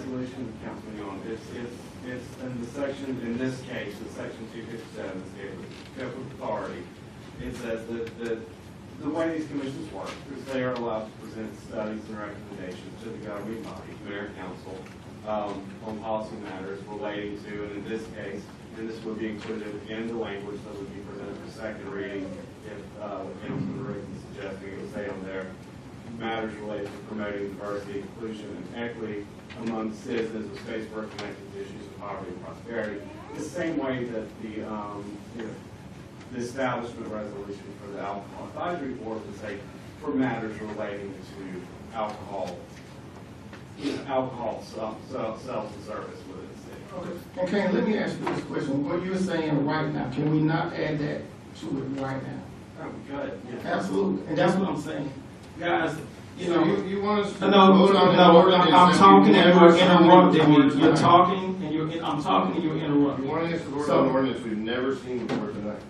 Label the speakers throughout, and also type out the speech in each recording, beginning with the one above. Speaker 1: resolution, Councilman Young, it's, it's, it's in the section, in this case, in section two fifty-seven, it's given, given authority. It says that, that the way these commissions work is they are allowed to present studies and recommendations to the governing body, to their council, um, on policy matters relating to, and in this case, and this would be included in the language that would be presented for second reading, if, uh, Councilman Riggs is suggesting it would say on there, matters related to promoting diversity, inclusion, and equity among citizens of space work connected to issues of poverty and prosperity. The same way that the, um, you know, the establishment resolution for the alcohol advisory board would say for matters relating to alcohol, you know, alcohol self, self, self-service within the city.
Speaker 2: Okay, let me ask you this question. What you're saying right now, can we not add that to it right now?
Speaker 1: Oh, good, yeah.
Speaker 2: Absolutely, and that's what I'm saying. Guys, you
Speaker 3: So
Speaker 2: know,
Speaker 3: you, you want us to?
Speaker 2: no, no,
Speaker 3: vote on the ordinance
Speaker 2: I'm talking and you're never signed it
Speaker 3: before
Speaker 2: before
Speaker 3: tonight?
Speaker 2: You're talking and you're, I'm talking and you're
Speaker 3: You
Speaker 2: interrupting.
Speaker 3: want us to vote
Speaker 2: So-
Speaker 3: on an ordinance we've never seen before tonight?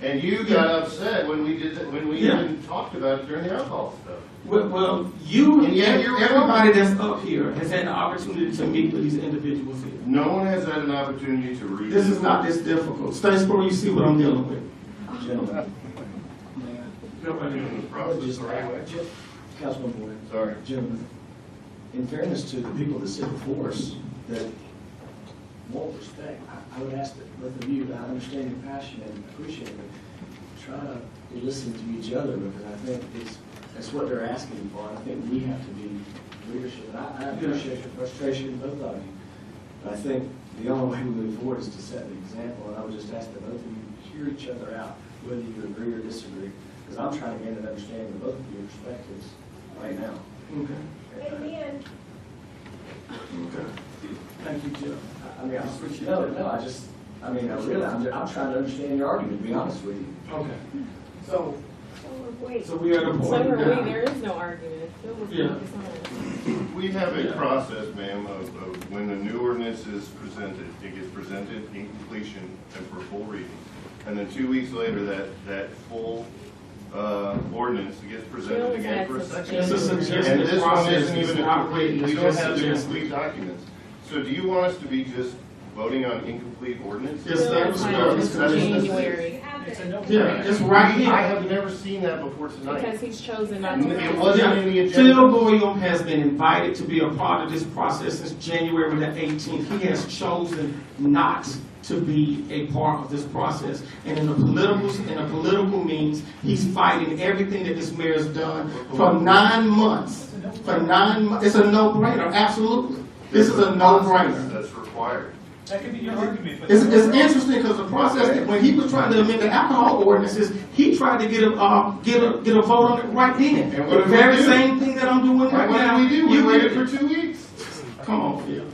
Speaker 3: And you got upset when we did, when we
Speaker 2: Yeah.
Speaker 3: even talked about it during the alcohol stuff.
Speaker 2: Well, well, you and
Speaker 3: Yeah, you're-
Speaker 2: everybody that's up here has had the opportunity to meet with these individuals here.
Speaker 3: No one has had an opportunity to read.
Speaker 2: This is not this difficult. Statesboro, you see what I'm dealing with. Nobody knows.
Speaker 3: Doing the process
Speaker 4: Just-
Speaker 3: the right way.
Speaker 4: Councilman Boyd,
Speaker 3: Sorry.
Speaker 4: gentlemen, in fairness to the people that sit before us, that want respect, I, I would ask that both of you, I understand your passion and appreciate it, try to be listening to each other, because I think it's, that's what they're asking for, I think we have to be leadership, and I, I appreciate your frustration, both of you. But I think the only way we move forward is to set the example, and I would just ask that both of you hear each other out, whether you agree or disagree, because I'm trying to gain an understanding of both of your perspectives right now.
Speaker 2: Okay,
Speaker 5: Amen.
Speaker 2: okay. Thank you, Jeff.
Speaker 4: I- I mean, I- no, no, I just, I mean, I really, I'm, I'm trying to understand your argument, to be honest with you.
Speaker 2: Okay. So,
Speaker 5: So we're waiting.
Speaker 2: so we are the
Speaker 6: So
Speaker 2: board.
Speaker 6: for me, there is no argument. It was-
Speaker 2: Yeah.
Speaker 6: it's not.
Speaker 3: We have a
Speaker 2: Yeah.
Speaker 3: process, ma'am, of, of when the new ordinance is presented, it gets presented in completion and for full reading. And then two weeks later, that, that full, uh, ordinance gets
Speaker 6: Jill
Speaker 3: presented
Speaker 6: was
Speaker 3: again for a
Speaker 6: asking
Speaker 3: second.
Speaker 2: It's a
Speaker 3: And
Speaker 2: suggested
Speaker 3: this one
Speaker 2: process.
Speaker 3: isn't even
Speaker 2: It's
Speaker 3: a
Speaker 2: not
Speaker 3: complete, we
Speaker 2: written,
Speaker 3: don't
Speaker 2: it's
Speaker 3: have the
Speaker 2: just
Speaker 3: complete documents. So do you want us to be just voting on incomplete ordinances?
Speaker 2: Yes, that was-
Speaker 6: Jill
Speaker 2: that
Speaker 6: was
Speaker 2: was-
Speaker 6: kind of
Speaker 3: that's-
Speaker 5: You
Speaker 6: January,
Speaker 5: have it.
Speaker 2: Yeah, it's right
Speaker 3: We- I
Speaker 2: here.
Speaker 3: have never seen that before tonight.
Speaker 6: because he's chosen not to.
Speaker 3: It wasn't in the
Speaker 2: Yeah,
Speaker 3: agenda.
Speaker 2: Phil Boyum has been invited to be a part of this process since January the 18th. He has chosen not to be a part of this process. And in the political, in the political means, he's fighting everything that this mayor's done for nine months. For nine, months. it's a no-brainer, absolutely. This is a no-brainer.
Speaker 3: That's required.
Speaker 7: That could be your argument, but.
Speaker 2: It's, it's interesting because the process, that when he was trying to amend the alcohol ordinances, he tried to get a, uh, get a, get a vote on it right then.
Speaker 3: And what
Speaker 2: The
Speaker 3: did we
Speaker 2: very
Speaker 3: do?
Speaker 2: same thing that I'm doing right
Speaker 3: What
Speaker 2: now.
Speaker 3: did we do? We
Speaker 2: You
Speaker 3: waited
Speaker 2: did
Speaker 3: for
Speaker 2: it.
Speaker 3: two weeks.
Speaker 2: Come on, Phil.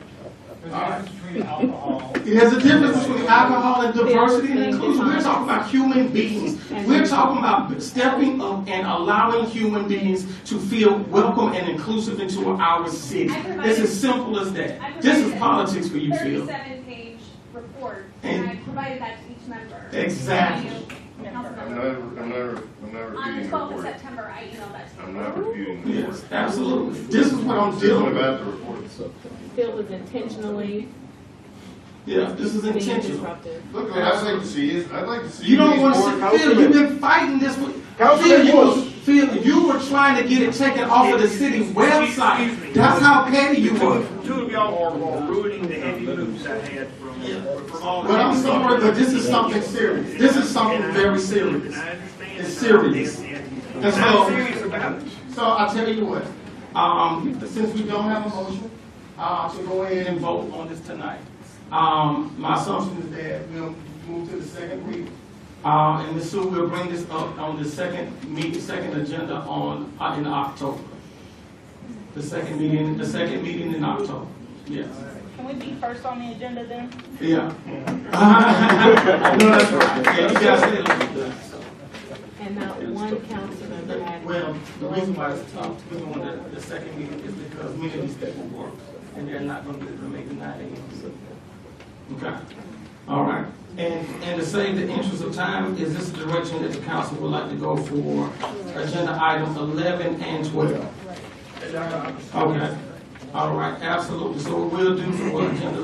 Speaker 7: There's a difference between alcohol.
Speaker 2: There's a difference between alcohol and diversity and
Speaker 6: Thing
Speaker 2: inclusion. We're
Speaker 6: defined.
Speaker 2: talking about human beings.
Speaker 6: And-
Speaker 2: We're talking about stepping up and allowing human beings to feel welcome and inclusive into our city.
Speaker 5: I provided-
Speaker 2: It's as simple as
Speaker 5: I
Speaker 2: that. This is
Speaker 5: provided
Speaker 2: politics for you, Phil.
Speaker 5: Thirty-seven page report, and I provided that to each member.
Speaker 2: Exactly.
Speaker 5: And you, council
Speaker 3: I'm
Speaker 5: member.
Speaker 3: not, I'm not, I'm not
Speaker 5: On the
Speaker 3: refuting the
Speaker 5: twelfth of
Speaker 3: report.
Speaker 5: September, I emailed that to you.
Speaker 3: I'm not refuting the report.
Speaker 2: Yes, absolutely. This is what I'm
Speaker 3: This
Speaker 2: dealing
Speaker 3: isn't
Speaker 2: with.
Speaker 3: about the report.
Speaker 6: Phil was intentionally
Speaker 2: Yeah, this is
Speaker 6: being
Speaker 2: intentional.
Speaker 6: disruptive.
Speaker 3: Look, what I'd like to see is, I'd like to see.
Speaker 2: You don't
Speaker 3: these
Speaker 2: want
Speaker 3: board-
Speaker 2: to see, Phil, you've been fighting this for, Phil,
Speaker 3: Councilman
Speaker 2: you were,
Speaker 3: Woods.
Speaker 2: Phil, you were trying to get it taken off of the city website. That's how petty you were.
Speaker 8: Two of y'all are are ruining the heavy moves I had from, from all.
Speaker 2: But I'm sorry, but this is something serious. This is something very serious.
Speaker 8: And I understand.
Speaker 2: It's serious.
Speaker 8: And
Speaker 2: That's
Speaker 8: I'm
Speaker 2: all.
Speaker 8: serious about it.
Speaker 2: So I tell you what, um, since we don't have a motion, uh, to go ahead and vote on this tonight. Um, my assumption is that we'll move to the second reading. Uh, and Ms. Sue, we'll bring this up on the second meeting, second agenda on, uh, in October. The second meeting, the second meeting in October, yes.
Speaker 9: Can we be first on the agenda then?
Speaker 2: Yeah. I know that's right. Yeah, you guys said it.
Speaker 6: And not one council member had.
Speaker 2: Well, the reason why it's top, we don't want the, the second meeting is because many of these people work, and they're not gonna be able to make the nine AM. so. Okay, all right, and, and to save the interest of time, is this the direction that the council would like to go for agenda items eleven and twelve? Okay, All right, absolutely. So we'll do some agenda